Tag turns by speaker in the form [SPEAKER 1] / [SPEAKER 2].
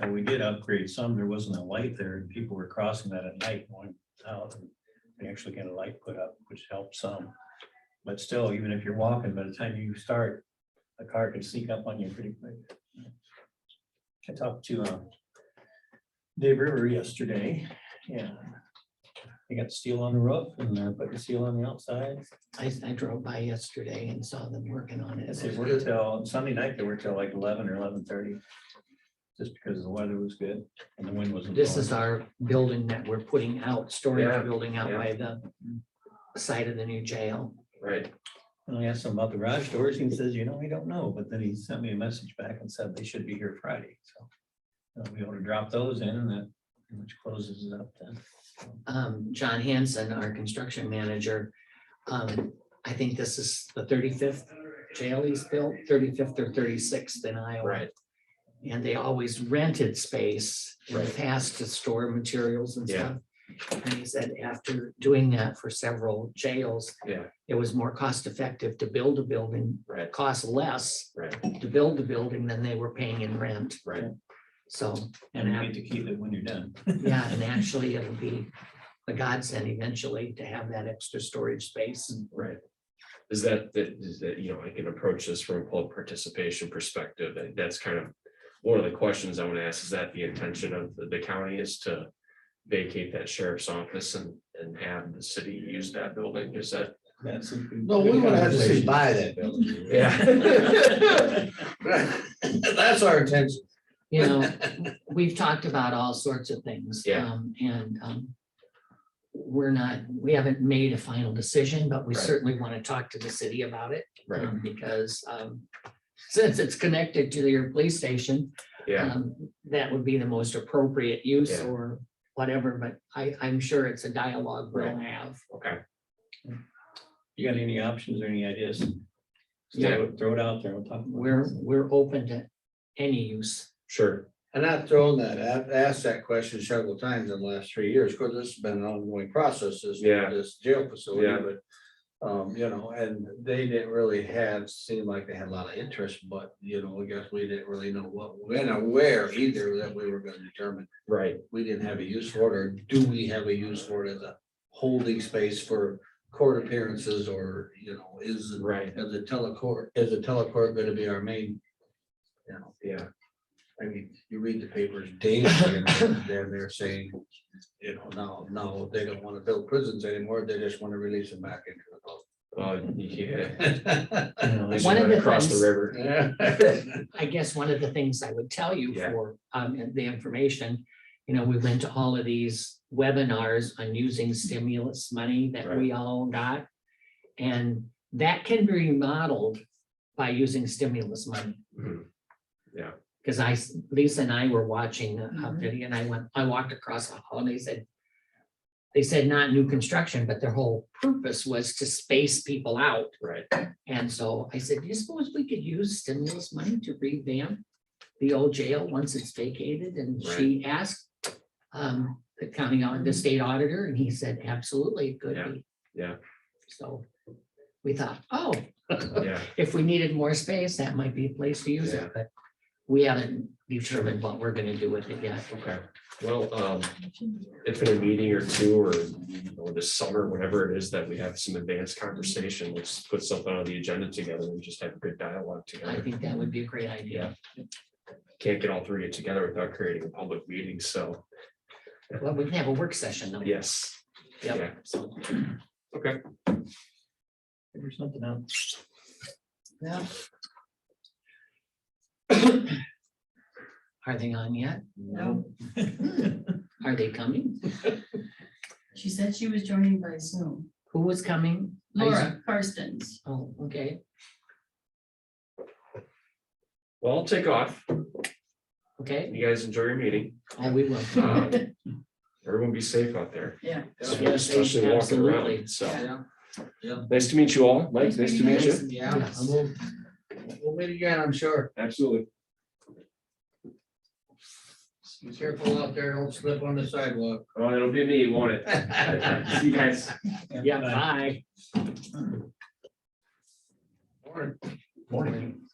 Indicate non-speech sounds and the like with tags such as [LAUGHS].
[SPEAKER 1] And we did upgrade some, there wasn't a light there, and people were crossing that at night going out. and They actually got a light put up, which helped some. But still, even if you're walking, by the time you start, a car can sneak up on you pretty quick. I talked to uh, Dave River yesterday, yeah. They got steel on the roof and they're putting steel on the outside.
[SPEAKER 2] I, I drove by yesterday and saw them working on it.
[SPEAKER 1] Yes, they worked till, Sunday night, they worked till like eleven or eleven thirty. Just because the weather was good and the wind wasn't.
[SPEAKER 2] This
[SPEAKER 1] blowing.
[SPEAKER 2] is our building that we're putting out,
[SPEAKER 3] Yeah,
[SPEAKER 2] storage building out
[SPEAKER 3] yeah.
[SPEAKER 2] by the side of the new jail.
[SPEAKER 3] Right.
[SPEAKER 1] And I asked him about the garage doors, and he says, you know, we don't know, but then he sent me a message back and said they should be here Friday, so. uh, We ought to drop those in and that, pretty much closes it up then.
[SPEAKER 2] Um, John Hanson, our construction manager, um, I think this is the thirty-fifth jail he's built, thirty-fifth or thirty-sixth in Iowa.
[SPEAKER 3] Right.
[SPEAKER 2] And they always rented space in the
[SPEAKER 3] Right.
[SPEAKER 2] past to store materials and stuff.
[SPEAKER 3] Yeah.
[SPEAKER 2] And he said after doing that for several jails.
[SPEAKER 3] Yeah.
[SPEAKER 2] It was more cost effective to build a building,
[SPEAKER 3] Right,
[SPEAKER 2] it cost less
[SPEAKER 3] right,
[SPEAKER 2] to build the building than they were paying in rent.
[SPEAKER 3] right.
[SPEAKER 2] So,
[SPEAKER 1] And
[SPEAKER 2] and,
[SPEAKER 1] you
[SPEAKER 2] ac-
[SPEAKER 1] need to keep it when you're done.
[SPEAKER 2] yeah, and actually it'll be a godsend eventually to have that extra storage space.
[SPEAKER 3] Right. Is that, that, is that, you know, I can approach this from a public participation perspective, and that's kind of. One of the questions I want to ask, is that the intention of the- the county is to vacate that sheriff's office and, and have the city use that building, is that?
[SPEAKER 1] That's.
[SPEAKER 4] No, we would have to say buy that building. [LAUGHS]
[SPEAKER 3] Yeah.
[SPEAKER 4] That's our intention.
[SPEAKER 2] You know,
[SPEAKER 3] [LAUGHS]
[SPEAKER 2] we've talked about all sorts of things.
[SPEAKER 3] Yeah.
[SPEAKER 2] um, And um, we're not, we haven't made a final decision, but we
[SPEAKER 3] Right.
[SPEAKER 2] certainly want to talk to the city about it.
[SPEAKER 3] Right,
[SPEAKER 2] um, Because um, [LAUGHS] since it's connected to your police station,
[SPEAKER 3] yeah,
[SPEAKER 2] um, That would be the most appropriate use
[SPEAKER 3] Yeah.
[SPEAKER 2] or whatever, but I, I'm sure it's a dialogue we'll have.
[SPEAKER 3] okay,
[SPEAKER 1] You got any options or any ideas?
[SPEAKER 3] Yeah.
[SPEAKER 1] Throw it- throw it out there, we'll talk. about it.
[SPEAKER 2] We're, we're open to any use.
[SPEAKER 3] sure,
[SPEAKER 4] And I've thrown that, I've asked that question several times in the last three years, because this has been an ongoing process, this,
[SPEAKER 3] Yeah.
[SPEAKER 4] this jail facility,
[SPEAKER 3] Yeah.
[SPEAKER 4] but. Um, you know, and they didn't really have, seemed like they had a lot of interest, but, you know, I guess we didn't really know what, when or where either that we were gonna determine.
[SPEAKER 3] right,
[SPEAKER 4] we didn't have a use for it, or do we have a use for it as a holding space for court appearances or, you know, is, is
[SPEAKER 3] right,
[SPEAKER 4] the telecourt, is the telecourt gonna be our main? You know,
[SPEAKER 3] yeah,
[SPEAKER 4] I mean, you read the papers daily and they're, they're saying, you know, no, no, they don't wanna build prisons anymore, they just wanna release them back into the
[SPEAKER 3] well, yeah.
[SPEAKER 4] public.
[SPEAKER 1] You know,
[SPEAKER 3] They
[SPEAKER 1] there's-
[SPEAKER 3] should
[SPEAKER 2] One of
[SPEAKER 3] run
[SPEAKER 2] the
[SPEAKER 3] Across the
[SPEAKER 2] things-
[SPEAKER 3] river.
[SPEAKER 2] I guess one of the things I would tell you
[SPEAKER 3] Yeah.
[SPEAKER 2] for um, and the information, you know, we went to all of these webinars on using stimulus money that we all got. And that can be remodeled by using stimulus money.
[SPEAKER 3] Mhm.
[SPEAKER 2] Because I, s- Lisa and I were watching a- a
[SPEAKER 5] Mhm.
[SPEAKER 2] video and I went, I walked across the hall and they said. They said not new construction, but their whole purpose was to space people out.
[SPEAKER 3] Right.
[SPEAKER 2] And so I said, do you suppose we could use stimulus money to revamp the old jail once it's vacated? And she asked. Um, the county, au- the state auditor, and he said, absolutely, it could
[SPEAKER 3] Yeah,
[SPEAKER 2] be.
[SPEAKER 3] yeah.
[SPEAKER 2] So. We thought, oh,
[SPEAKER 3] Yeah,
[SPEAKER 2] if we needed more space, that might be a place to use
[SPEAKER 3] Yeah.
[SPEAKER 2] it, but we haven't determined what we're gonna do with it yet.
[SPEAKER 3] okay, well, um, if in a meeting or two or, you know, this summer, whenever it is that we have some advanced conversation, let's put something on the agenda together and just have a good dialogue
[SPEAKER 2] I
[SPEAKER 3] together.
[SPEAKER 2] think that would be a great idea.
[SPEAKER 3] Can't get all three of you together without creating a public meeting, so,
[SPEAKER 2] Well, we can have a work session though.
[SPEAKER 3] yes.
[SPEAKER 2] Yep.
[SPEAKER 3] Yeah,
[SPEAKER 2] So,
[SPEAKER 3] okay,
[SPEAKER 1] there's something else.
[SPEAKER 2] yeah. Are they on yet?
[SPEAKER 5] No,
[SPEAKER 2] Are they coming?
[SPEAKER 5] she said she was joining by Zoom.
[SPEAKER 2] Who was coming? I s-
[SPEAKER 5] Laura Carstens.
[SPEAKER 2] Oh, okay,
[SPEAKER 3] well, I'll take off.
[SPEAKER 2] okay.
[SPEAKER 3] You guys enjoy your meeting.
[SPEAKER 2] Oh, we will.
[SPEAKER 3] Um, Everyone be safe out there.
[SPEAKER 5] Yeah.
[SPEAKER 2] Yes,
[SPEAKER 3] Especially walking
[SPEAKER 2] absolutely.
[SPEAKER 3] around, so.
[SPEAKER 4] Yeah,
[SPEAKER 3] Nice to meet you all. Mike,
[SPEAKER 5] Nice
[SPEAKER 3] nice to
[SPEAKER 5] meeting you
[SPEAKER 2] [LAUGHS]
[SPEAKER 3] meet you.
[SPEAKER 4] yeah, and we'll, we'll meet again, I'm sure.
[SPEAKER 3] Absolutely.
[SPEAKER 4] Be careful out there, don't slip on the sidewalk.
[SPEAKER 3] Oh, it'll be me, won't it?
[SPEAKER 2] [LAUGHS]
[SPEAKER 3] See you guys.
[SPEAKER 2] Yeah, bye.
[SPEAKER 4] Morning.
[SPEAKER 2] Morning.